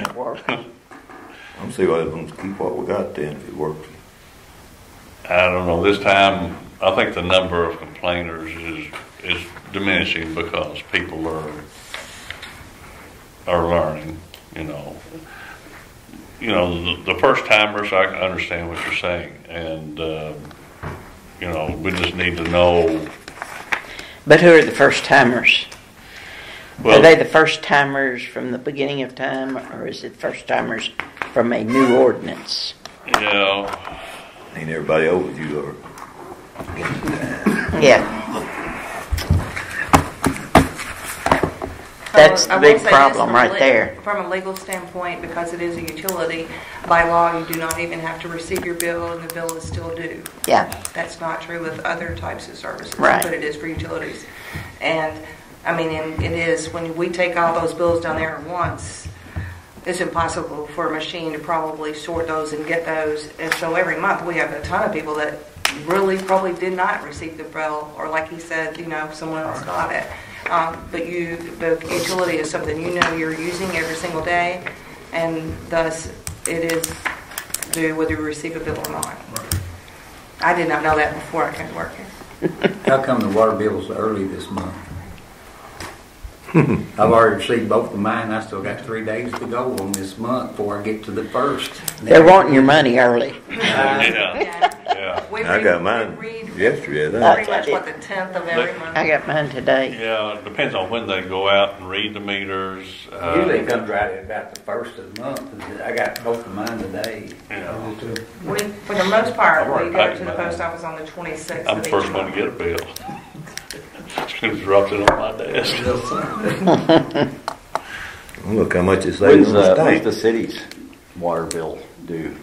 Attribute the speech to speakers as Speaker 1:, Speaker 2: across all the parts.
Speaker 1: it works.
Speaker 2: I'm see why let's keep what we got then if it works.
Speaker 3: I don't know, this time, I think the number of complainers is, is diminishing because people are, are learning, you know. You know, the, the first timers, I can understand what you're saying, and, um, you know, we just need to know.
Speaker 1: But who are the first timers?
Speaker 3: well,
Speaker 1: Are they the first timers from the beginning of time, or is it first timers from a new ordinance?
Speaker 3: Yeah,
Speaker 2: Ain't everybody over you or
Speaker 1: Yeah. That's
Speaker 4: I
Speaker 1: the
Speaker 4: will
Speaker 1: big
Speaker 4: say this
Speaker 1: problem
Speaker 4: from a
Speaker 1: right
Speaker 4: le-
Speaker 1: there.
Speaker 4: From a legal standpoint, because it is a utility, by law, you do not even have to receive your bill and the bill is still due.
Speaker 1: Yeah,
Speaker 4: That's not true with other types of services.
Speaker 1: Right.
Speaker 4: But it is for utilities. And, I mean, and it is, when we take all those bills down there at once, it's impossible for a machine to probably sort those and get those. And so every month, we have a ton of people that really probably did not receive the bill, or like he said, you know, someone else got it. Um, But you, the utility is something you know you're using every single day, and thus it is due whether you receive a bill or not. I did not know that before I came to work here.
Speaker 5: How come the water bill's early this month? I've already received both of mine, I still got three days to go on this month before I get to the first.
Speaker 1: they're wanting your money early.
Speaker 3: yeah,
Speaker 4: Yeah.
Speaker 3: yeah,
Speaker 4: We
Speaker 2: I
Speaker 4: read-
Speaker 2: got mine
Speaker 4: we read
Speaker 2: yesterday, I think.
Speaker 4: Pretty much what, the 10th of every month?
Speaker 1: I got mine today.
Speaker 3: yeah, it depends on when they go out and read the meters. uh,
Speaker 5: Usually it comes right at about the first of the month, and I got both of mine today.
Speaker 3: Yeah.
Speaker 4: We, for the most part,
Speaker 3: I work
Speaker 4: we
Speaker 3: back
Speaker 4: go to the
Speaker 3: in my-
Speaker 4: post office on the 26th
Speaker 3: Uh, I'm
Speaker 4: of
Speaker 3: the
Speaker 4: each
Speaker 3: first one to
Speaker 4: month.
Speaker 3: get a bill. Just dropped it on my desk.
Speaker 2: Well, Look how much it saves
Speaker 6: When's
Speaker 2: on
Speaker 6: the,
Speaker 2: the
Speaker 6: when's the
Speaker 2: state.
Speaker 6: city's water bill due?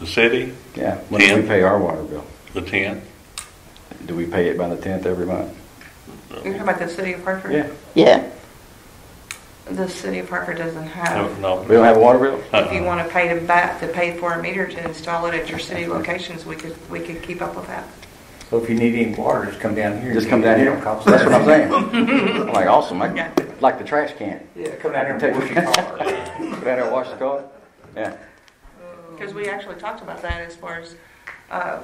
Speaker 3: The city,
Speaker 6: Yeah, when do we
Speaker 3: Tenth.
Speaker 6: pay our water bill?
Speaker 3: the tenth,
Speaker 6: Do we pay it by the tenth every month?
Speaker 4: You're talking about the city of Hartford?
Speaker 6: Yeah,
Speaker 1: Yeah,
Speaker 4: The city of Hartford doesn't
Speaker 3: no,
Speaker 4: have,
Speaker 3: no.
Speaker 6: we don't have a water bill?
Speaker 3: Uh-uh.
Speaker 4: if you want to pay to back, to pay for a meter to install it at your city locations, we could, we could keep up with that.
Speaker 5: So if you need any water, just come down here.
Speaker 6: Just come down here,
Speaker 5: It don't cost
Speaker 6: that's what I'm
Speaker 5: nothing.
Speaker 6: saying. I'm Like, awesome, I- like the trash can.
Speaker 5: Yeah, come down here
Speaker 6: Take
Speaker 5: and
Speaker 6: your
Speaker 5: wash your car.
Speaker 6: car. Go down there and wash the car, yeah.
Speaker 4: Because we actually talked about that as far as, uh,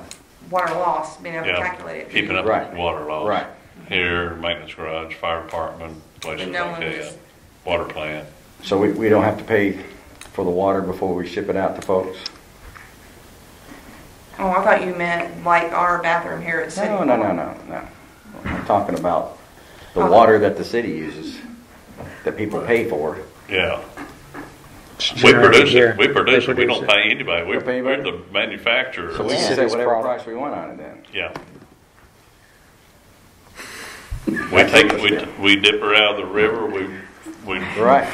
Speaker 4: water loss, being able to
Speaker 3: Yeah.
Speaker 4: calculate it.
Speaker 3: Keeping up
Speaker 6: Right.
Speaker 3: with water laws.
Speaker 6: Right.
Speaker 3: Here, maintenance garage, fire department, places
Speaker 4: But no
Speaker 3: like
Speaker 4: one
Speaker 3: that,
Speaker 4: is-
Speaker 3: water plant.
Speaker 6: So we, we don't have to pay for the water before we ship it out to folks?
Speaker 4: Oh, I thought you meant like our bathroom here at City
Speaker 6: No,
Speaker 4: Hall.
Speaker 6: no, no, no, no. I'm talking about the
Speaker 4: Oh.
Speaker 6: water that the city uses, that people pay for.
Speaker 3: Yeah. We produce it, we produce it, we don't pay anybody, we,
Speaker 6: Don't pay
Speaker 3: we're
Speaker 6: anybody?
Speaker 3: the manufacturer.
Speaker 6: So we
Speaker 1: Yeah.
Speaker 6: can say
Speaker 7: City's
Speaker 6: whatever
Speaker 7: product.
Speaker 6: price we want on it then.
Speaker 3: Yeah. We take,
Speaker 6: what
Speaker 3: we,
Speaker 6: it's
Speaker 3: we dip her out of the river, we, we
Speaker 6: Right.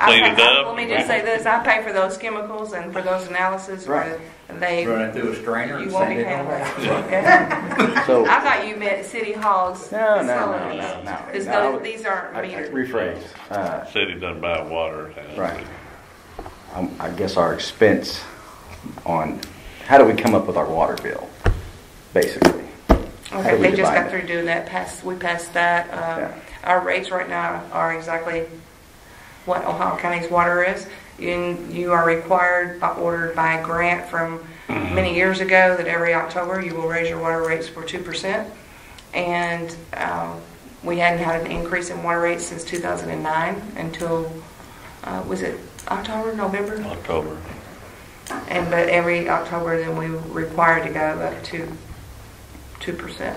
Speaker 4: I
Speaker 3: clean
Speaker 4: pay-
Speaker 3: it up.
Speaker 4: Let me just say this, I pay for those chemicals and for those analysis where they,
Speaker 5: Run it through a strainer
Speaker 4: you
Speaker 5: and
Speaker 4: won't
Speaker 5: send
Speaker 4: be
Speaker 5: it
Speaker 4: paying.
Speaker 5: on.
Speaker 4: I
Speaker 6: So.
Speaker 4: thought you meant City Hall's.
Speaker 6: No, no, no,
Speaker 4: facilities.
Speaker 6: no, no,
Speaker 4: It's
Speaker 6: no.
Speaker 4: those- These aren't
Speaker 6: I- I-
Speaker 4: metered.
Speaker 6: Rephrase. Uh,
Speaker 3: City doesn't buy water. uh,
Speaker 6: Right. um, I guess our expense on, how do we come up with our water bill, basically? How
Speaker 4: Okay,
Speaker 6: do we
Speaker 4: they just
Speaker 6: divide
Speaker 4: got
Speaker 6: it?
Speaker 4: through doing that, passed, we passed that.
Speaker 6: Yeah.
Speaker 4: Um, Our rates right now are exactly what Ohio County's water is. And you are required, by ordered by a grant from many years ago, that every October you will raise your water rates for 2%. And um, we hadn't had an increase in water rates since 2009 until, uh, was it October, November?
Speaker 3: October.
Speaker 4: And, but every October, then we were required to go up to 2%.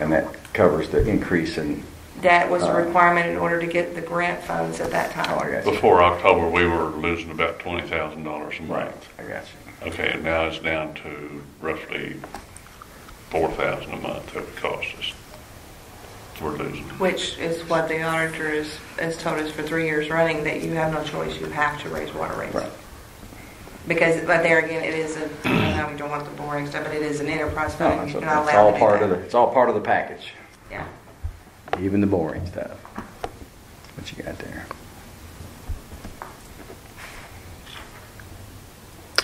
Speaker 6: And that covers the increase in,
Speaker 4: That was a
Speaker 6: Uh,
Speaker 4: requirement in order to get the grant funds at that
Speaker 6: oh, I
Speaker 4: time.
Speaker 6: got you.
Speaker 3: Before October, we were losing about twenty thousand dollars a
Speaker 6: Right,
Speaker 3: month.
Speaker 6: I got you.
Speaker 3: Okay, and now it's down to roughly four thousand a month that would cost us. We're losing.
Speaker 4: Which is what the auditor is, has told us for three years running, that you have no choice, you have to raise water rates.
Speaker 6: Right.
Speaker 4: Because, but there again, it is a, I know we don't want the boring stuff, but it is an enterprise
Speaker 6: No,
Speaker 4: fund,
Speaker 6: it's
Speaker 4: you're not
Speaker 6: it's
Speaker 4: allowed
Speaker 6: all
Speaker 4: to do
Speaker 6: part of the,
Speaker 4: that.
Speaker 6: it's all part of the package,
Speaker 4: Yeah.
Speaker 6: even the boring stuff. What you got there?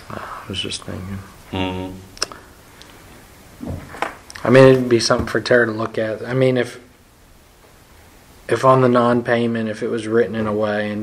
Speaker 7: I was just thinking.
Speaker 3: Mm-hmm.
Speaker 7: I mean, it'd be something for Tara to look at. I mean, if if on the non-payment, if it was written in a way and